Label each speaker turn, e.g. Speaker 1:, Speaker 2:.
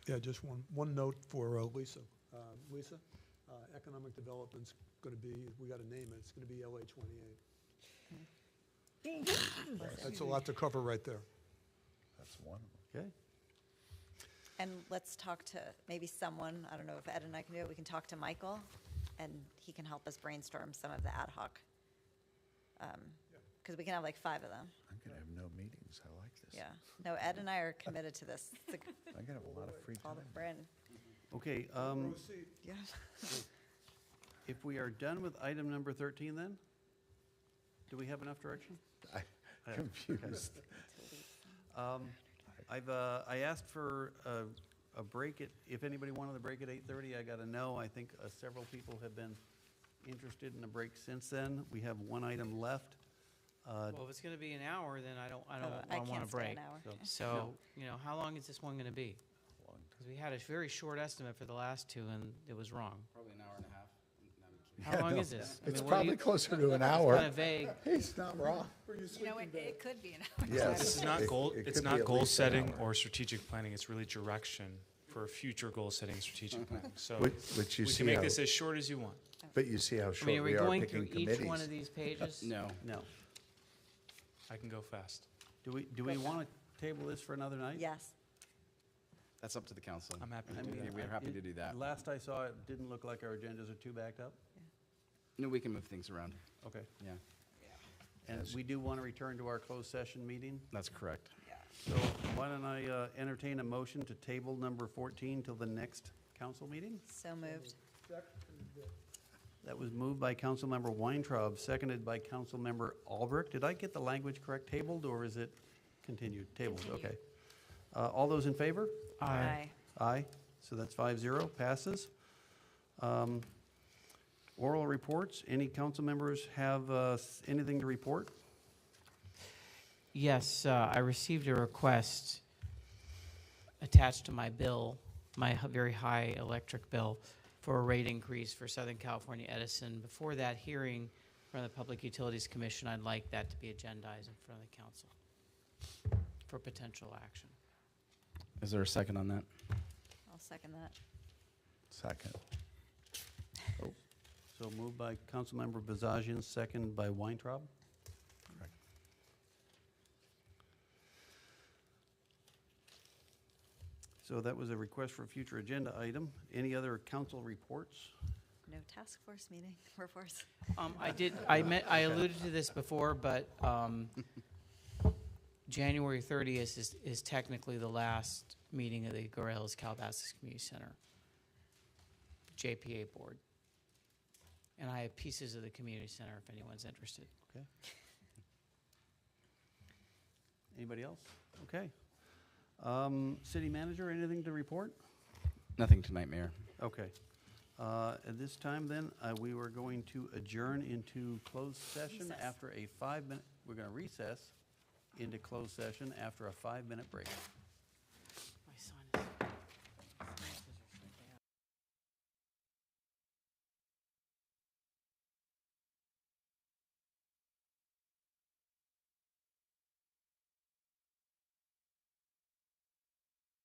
Speaker 1: Yeah, just one, one note for uh, Lisa. Uh, Lisa, uh, economic development's going to be, we got to name it, it's going to be LA 28. That's a lot to cover right there.
Speaker 2: That's one.
Speaker 3: Okay.
Speaker 4: And let's talk to maybe someone, I don't know if Ed and I can do it, we can talk to Michael, and he can help us brainstorm some of the ad hoc. Because we can have like five of them,
Speaker 2: I'm gonna have no meetings. I like this.
Speaker 4: yeah. No, Ed and I are committed to this. It's like
Speaker 2: I'm gonna have a lot of free
Speaker 4: all
Speaker 2: time.
Speaker 4: that we're in.
Speaker 3: Okay, um,
Speaker 1: Proceed.
Speaker 4: Yeah.
Speaker 3: if we are done with item number 13 then? Do we have enough direction?
Speaker 2: I'm confused.
Speaker 3: Um, I've, uh, I asked for a, a break at, if anybody wanted to break at 8:30, I got a no. I think uh, several people have been interested in a break since then. We have one item left. Uh,
Speaker 5: Well, if it's gonna be an hour, then I don't, I
Speaker 4: Oh,
Speaker 5: don't,
Speaker 4: I
Speaker 5: I want
Speaker 4: can't
Speaker 5: a
Speaker 4: stay an
Speaker 5: break.
Speaker 4: hour.
Speaker 3: so-
Speaker 5: So, you know, how long is this one gonna be?
Speaker 2: Long
Speaker 5: Because we had a very short estimate for the last two, and it was wrong.
Speaker 6: Probably an hour and a half. No, I'm kidding.
Speaker 5: How long
Speaker 2: no,
Speaker 5: is this? I
Speaker 2: It's
Speaker 5: mean, what do
Speaker 2: probably
Speaker 5: you-
Speaker 2: closer to an
Speaker 5: It's kind
Speaker 2: hour.
Speaker 5: of vague.
Speaker 2: He's not wrong.
Speaker 7: You know, it, it could be an hour.
Speaker 2: Yes.
Speaker 8: This is not
Speaker 2: It-
Speaker 8: goal,
Speaker 2: it
Speaker 8: it's
Speaker 2: could be
Speaker 8: not
Speaker 2: at
Speaker 8: goal
Speaker 2: least an
Speaker 8: setting
Speaker 2: hour.
Speaker 8: or strategic planning, it's really direction for future goal setting, strategic planning. So
Speaker 2: Which- which you
Speaker 8: we
Speaker 2: see
Speaker 8: can make
Speaker 2: how-
Speaker 8: this as short as you want.
Speaker 2: But you see how
Speaker 5: I
Speaker 2: short
Speaker 5: mean, are we
Speaker 2: we are
Speaker 5: going through
Speaker 2: picking
Speaker 5: each one of
Speaker 2: committees.
Speaker 5: these pages?
Speaker 6: No.
Speaker 3: No.
Speaker 8: I can go fast.
Speaker 3: Do we, do we want to table this for another night?
Speaker 4: Yes,
Speaker 6: That's up to the council.
Speaker 8: I'm happy
Speaker 3: I
Speaker 8: to do
Speaker 3: mean,
Speaker 8: that.
Speaker 6: We're
Speaker 3: I-
Speaker 6: happy to
Speaker 3: it-
Speaker 6: do that.
Speaker 3: Last I saw, it didn't look like our agendas are too backed up.
Speaker 6: No, we can move things around.
Speaker 3: Okay.
Speaker 6: Yeah,
Speaker 3: And we do want to return to our closed session meeting.
Speaker 6: that's correct.
Speaker 3: So why don't I uh, entertain a motion to table number 14 till the next council meeting?
Speaker 4: so moved.
Speaker 3: That was moved by Councilmember Weintraub, seconded by Councilmember Albrecht. Did I get the language correct, tabled, or is it continued? Tabled, okay. Uh, All those in favor?
Speaker 4: Aye.
Speaker 3: Aye, so that's five zero, passes. Um, Oral reports, any council members have uh, s- anything to report?
Speaker 5: Yes, uh, I received a request attached to my bill, my h- very high electric bill, for a rate increase for Southern California Edison. Before that hearing from the Public Utilities Commission, I'd like that to be agendized in front of the council for potential action.
Speaker 6: Is there a second on that?
Speaker 4: I'll second that.
Speaker 2: Second.
Speaker 3: So moved by Councilmember Bazagian, seconded by Weintraub.
Speaker 2: Correct.
Speaker 3: So that was a request for a future agenda item. Any other council reports?
Speaker 4: No task force meeting, reports.
Speaker 5: Um, I did, I meant, I alluded to this before, but, um, January thirtieth is, is technically the last meeting of the Gorillas Calabasas Community Center. JPA Board. And I have pieces of the community center if anyone's interested.
Speaker 3: Okay. Anybody else? Okay. Um, City manager, anything to report?
Speaker 6: Nothing tonight, Mayor.
Speaker 3: Okay. Uh, At this time then, uh, we were going to adjourn into closed session
Speaker 4: Recess.
Speaker 3: after a five-minute, we're going to recess into closed session after a five-minute break.